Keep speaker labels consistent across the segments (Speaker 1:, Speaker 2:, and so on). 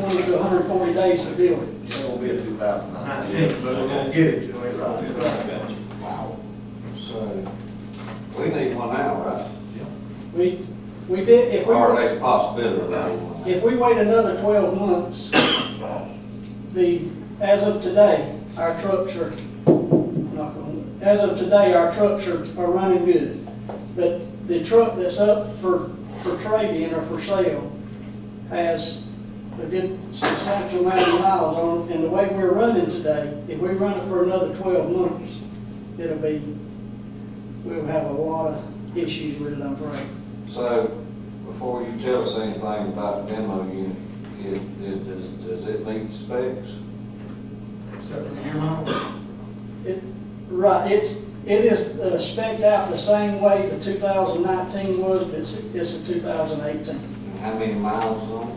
Speaker 1: hundred and forty days to build it.
Speaker 2: It won't be a two thousand
Speaker 3: Nineteen,
Speaker 2: nineteen.
Speaker 3: but we're gonna get it to it.
Speaker 4: Wow.
Speaker 2: So,
Speaker 4: We need one now, right?
Speaker 1: We, we did, if we.
Speaker 4: Or at least possibility of one.
Speaker 1: If we wait another twelve months, the, as of today, our trucks are, knock on wood, as of today, our trucks are, are running good. But the truck that's up for, for trade-in or for sale has a good substantial amount of miles on it. And the way we're running today, if we run it for another twelve months, it'll be, we'll have a lot of issues with it, I'm afraid.
Speaker 4: So, before you tell us anything about the demo unit, it, it, does, does it meet specs?
Speaker 3: Except for your mom.
Speaker 1: It, right, it's, it is uh, spec'd out the same way the 2019 was, but it's, it's a 2018.
Speaker 4: And how many miles on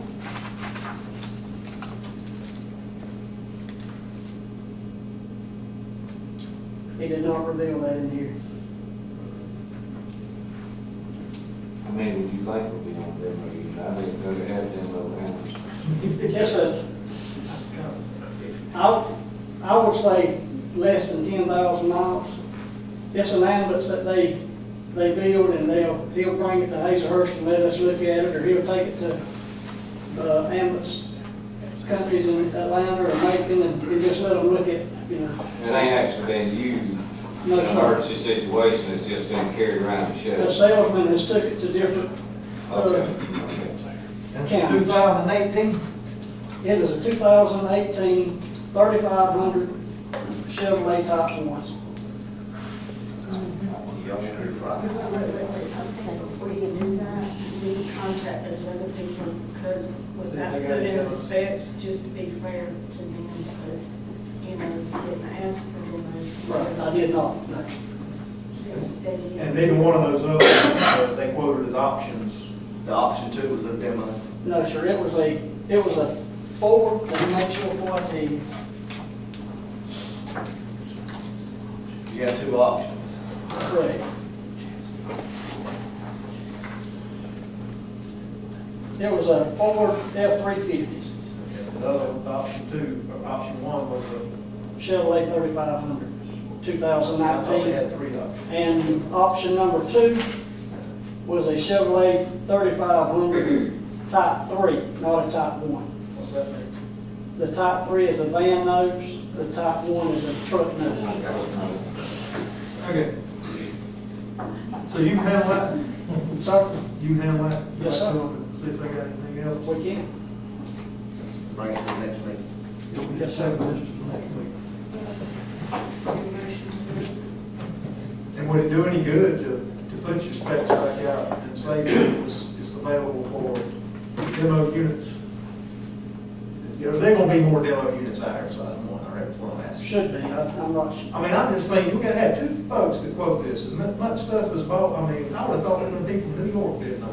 Speaker 1: He did not reveal that in here.
Speaker 4: it? How many do you think will be on the demo unit? I didn't go to have demo panels.
Speaker 1: It's a,
Speaker 3: Let's go.
Speaker 1: I, I would say less than 10,000 miles. It's an ambulance that they, they build and they'll, he'll bring it to Hazelhurst and let us look at it, or he'll take it to, uh, ambulance companies in Atlanta or Macon and and just let them look at, you know.
Speaker 4: It ain't actually been used. It's
Speaker 1: No,
Speaker 4: an
Speaker 1: sir.
Speaker 4: emergency situation, it's just been carried around and
Speaker 1: The
Speaker 4: shoved.
Speaker 1: salesman has took it to different,
Speaker 4: Okay,
Speaker 1: uh,
Speaker 4: okay.
Speaker 3: That's
Speaker 1: Yeah.
Speaker 3: two thousand and eighteen?
Speaker 1: It is a 2018 3500 Chevrolet Type 1.
Speaker 2: y'all should be
Speaker 5: Wait,
Speaker 2: right.
Speaker 5: wait, wait, wait, okay, we can do that, we need to contact those other people, because was
Speaker 3: See if
Speaker 5: that
Speaker 3: they
Speaker 5: put
Speaker 3: got
Speaker 5: in the
Speaker 3: any.
Speaker 5: specs, just to be fair to them, because, you know, we didn't ask for the
Speaker 1: Right, I
Speaker 5: motion.
Speaker 1: did not, no.
Speaker 3: And neither one of those other, ones, uh, they quoted as options.
Speaker 2: The option two was a demo.
Speaker 1: No, sir, it was a, it was a Ford, let me make sure what the,
Speaker 2: You got two options.
Speaker 1: correct. It was a Ford F-350
Speaker 3: The other, option two, or option one was a.
Speaker 1: Chevrolet 3500 2019.
Speaker 3: They had three options.
Speaker 1: And option number two was a Chevrolet 3500 Type 3, not a Type 1.
Speaker 3: What's that mean?
Speaker 1: The Type 3 is a van nose, the Type 1 is a truck nose.
Speaker 3: Okay. So you handle that?
Speaker 1: So,
Speaker 3: You handle that?
Speaker 1: Yes, sir.
Speaker 3: See if they got anything else.
Speaker 1: we can,
Speaker 2: Bring it to the next meeting.
Speaker 1: yes, sir.
Speaker 3: And would it do any good to, to put your specs back out and say that it's, it's available for demo units? Because there gonna be more demo units out here, so I don't want, I reckon, one last.
Speaker 1: Should be, I- I'm not sure.
Speaker 3: I mean, I'm just thinking, we got to have two folks that quote this, and mu- much stuff was bought, I mean, I would've thought it would be from New York, didn't I?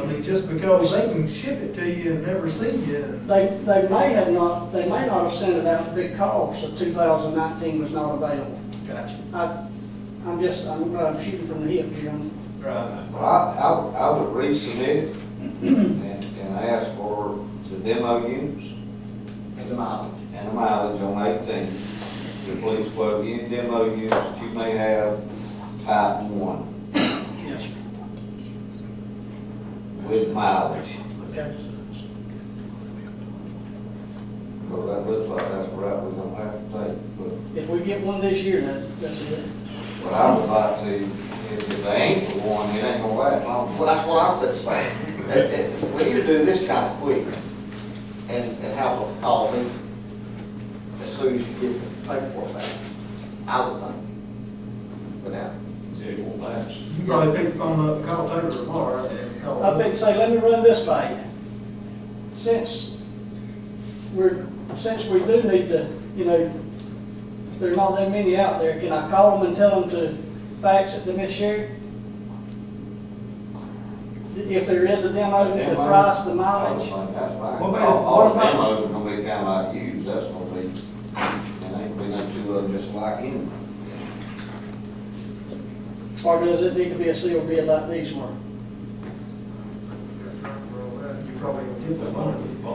Speaker 3: I mean, just because they can ship it to you and never see you, and
Speaker 1: They, they may have not, they may not have sent it out because the 2019 was not available.
Speaker 3: gotcha.
Speaker 1: I, I'm just, I'm uh, shooting from the hip here. I'm-
Speaker 3: Right.
Speaker 4: Well, I, I, would- I would resubmit it and, and ask for the demo units
Speaker 2: And the mileage.
Speaker 4: and the mileage on eighteen. The police plug in demo units that you may have type one
Speaker 1: Yes, sir.
Speaker 4: with mileage.
Speaker 1: Okay.
Speaker 4: Because that looks like that's the route we're gonna have to take, but
Speaker 1: If we get one this year, that, that's it.
Speaker 4: what I would like to, if if they ain't for one, it ain't gonna last long.
Speaker 2: Well, that's what I was gonna say. It- it- We need to do this kind of quick and, and have a call me as soon as you get the paperwork back. I would think. But now,
Speaker 4: It won't last.
Speaker 3: You probably pick the phone up, call Taylor tomorrow, and call.
Speaker 1: I think, say, let me run this by you. Since we're, since we do need to, you know, there's not that many out there, can I call them and tell them to fax it to Miss Sherry? If there is a demo, the price, the mileage,
Speaker 4: That's fine.
Speaker 3: What
Speaker 4: All,
Speaker 3: about-
Speaker 4: all
Speaker 3: what about-
Speaker 4: demos are gonna be kinda like used, that's gonna be, and ain't gonna be no two of them just like in.
Speaker 1: or does it need to be a sealed bid like these were?
Speaker 3: You probably gonna get that money.